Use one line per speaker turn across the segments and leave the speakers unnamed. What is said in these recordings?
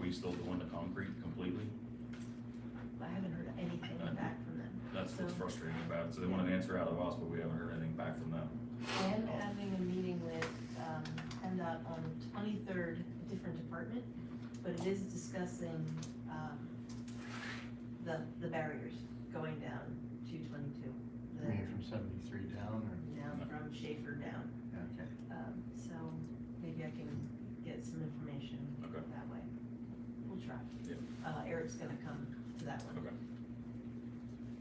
we still doing the concrete completely?
I haven't heard anything back from them.
That's what's
So-
frustrating about it, so they want an answer out of us, but we haven't heard anything back from them.
I am having a meeting with, um, PennDOT on twenty-third, different department, but it is discussing, um, the, the barriers going down to twenty-two.
I mean, from seventy-three down or,
Down from Schaefer down,
okay.
um, so maybe I can get some information
Okay.
that way. We'll try.
Yeah.
Uh, Eric's gonna come to that one.
Okay.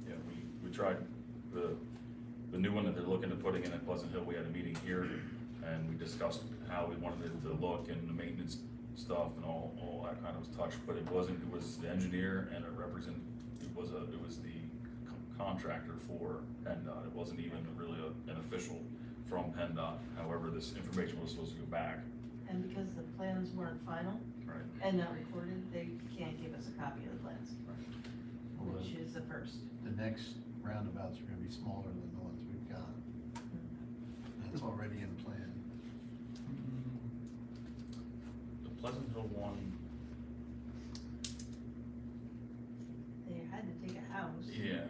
Yeah, we, we tried the, the new one that they're looking to putting in at Pleasant Hill, we had a meeting here, and we discussed how we wanted it to look and the maintenance stuff and all, all that kind of was touched, but it wasn't, it was the engineer and a represent, it was a, it was the con- contractor for PennDOT, it wasn't even really a- an official from PennDOT, however, this information was supposed to go back,
And because the plans weren't final
right?
and not recorded, they can't give us a copy of the plans,
Well,
which is the first.
The the next roundabouts are gonna be smaller than the ones we've got. That's already in plan.
The Pleasant Hill one,
They had to take a house.
yeah,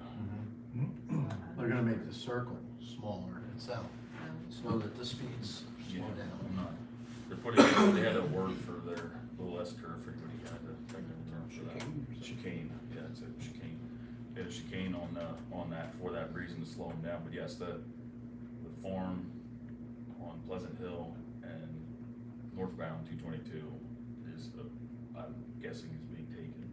They're gonna make the circle smaller itself,
Um,
so that the speeds
Yeah,
slow
I'm
down.
not, they're putting, they had a word for their little S curve, forget what he had, the technical term for that. Chicane, yeah, it's a chicane, they had a chicane on the, on that, for that reason to slow them down, but yes, the, the farm on Pleasant Hill and northbound two twenty-two is, uh, I'm guessing is being taken.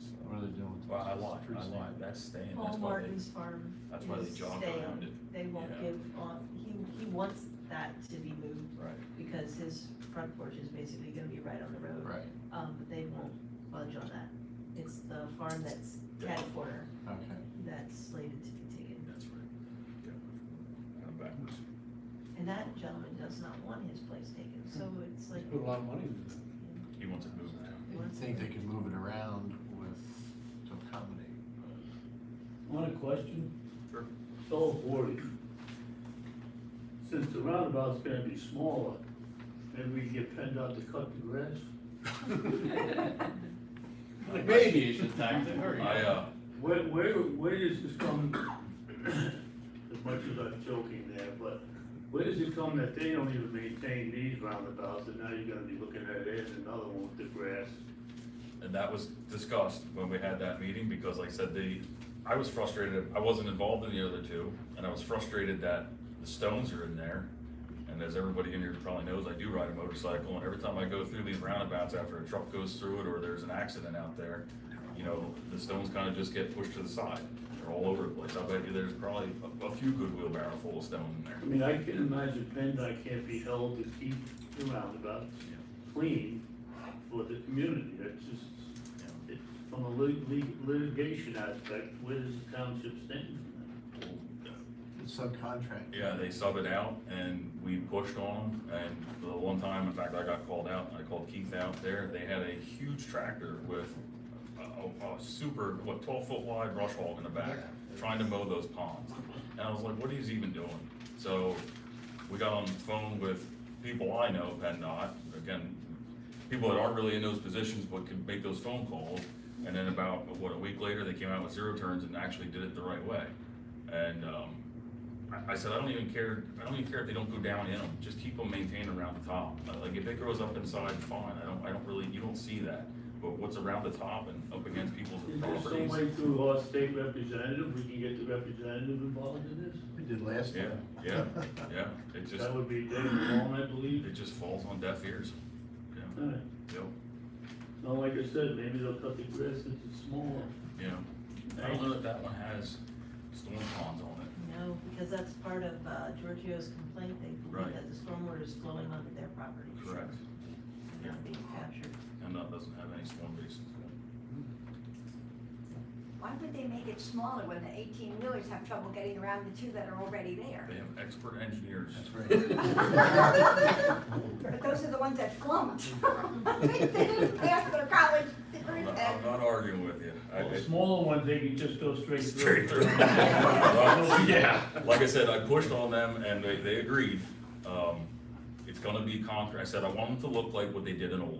So,
What are they doing with?
Well, I
those?
lied, I
Freestanding.
lied, that's staying, that's
Paul
why they,
Martin's farm.
that's why they
is
jogged
staying.
around it,
They won't
Yeah.
give, on- he, he wants that to be moved
right,
because his front porch is basically gonna be right on the road.
Right,
Um, but they won't budge on that. It's the farm that's
Yeah.
cat corner
okay.
that's slated to be taken.
that's right, yeah, kind of backwards.
And that gentleman does not want his place taken, so it's like,
Put a lot of money into that.
He wants it moved.
You would think they could move it around with, to accommodate.
On a question?
Sure.
Soul forty. Since the roundabout's gonna be smaller, maybe we get PennDOT to cut the grass?
Maybe you should tax it, hurry.
I, uh,
Where, where, where is this coming? As much as I'm joking there, but where does it come that they don't even maintain these roundabouts, and now you're gonna be looking at it and another one with the grass?
and that was discussed when we had that meeting, because like I said, the, I was frustrated, I wasn't involved in the other two, and I was frustrated that the stones are in there. And as everybody in here probably knows, I do ride a motorcycle, and every time I go through these roundabouts after a truck goes through it, or there's an accident out there, you know, the stones kind of just get pushed to the side, they're all over the place, I bet you there's probably a, a few good wheelbarrow full of stone in there.
I mean, I can imagine PennDOT can't be held to keep the roundabout clean for the community, that's just,
you know.
it, from a lit- lit- litigation aspect, where does the township stand?
It's subcontract.
Yeah, they sub it out and we pushed on them and the one time, in fact, I got called out, I called Keith out there, they had a huge tractor with a, a, a super, what, twelve foot wide brush hog in the back, trying to mow those ponds. And I was like, what are you even doing? So we got on the phone with people I know, PennDOT, again, people that aren't really in those positions but can make those phone calls. And then about, what, a week later, they came out with zero turns and actually did it the right way. And, um, I, I said, I don't even care, I don't even care if they don't go down in them, just keep them maintained around the top. Uh, Like, if it grows up inside, fine, I don't, I don't really, you don't see that, but what's around the top and up against people's
Is there some
properties.
way through our state representative, we can get the representative involved in this?
We did last
Yeah,
time.
yeah, yeah, it just,
That would be David Long, I believe.
it just falls on deaf ears. Yeah,
Alright,
yep,
now, like I said, maybe they'll cut the grass since it's smaller.
yeah. I don't know that that one has storm ponds on it.
no, because that's part of, uh, Giorgio's complaint. They
Right.
believe that the stormwater is flowing onto their property. Not being captured.
And that doesn't have any storm basins.
Why would they make it smaller when the eighteen wheelers have trouble getting around the two that are already there?
They have expert engineers.
That's right.
But those are the ones that flunked. They didn't pass their college
I'm
degree
not,
test.
I'm not arguing with you. I-
Well,
it-
Smaller ones, they can just go straight through.
Straight through. Well, Yeah, like I said, I pushed on them and they, they agreed. Um, it's gonna be concrete. I said, I want them to look like what they did in Old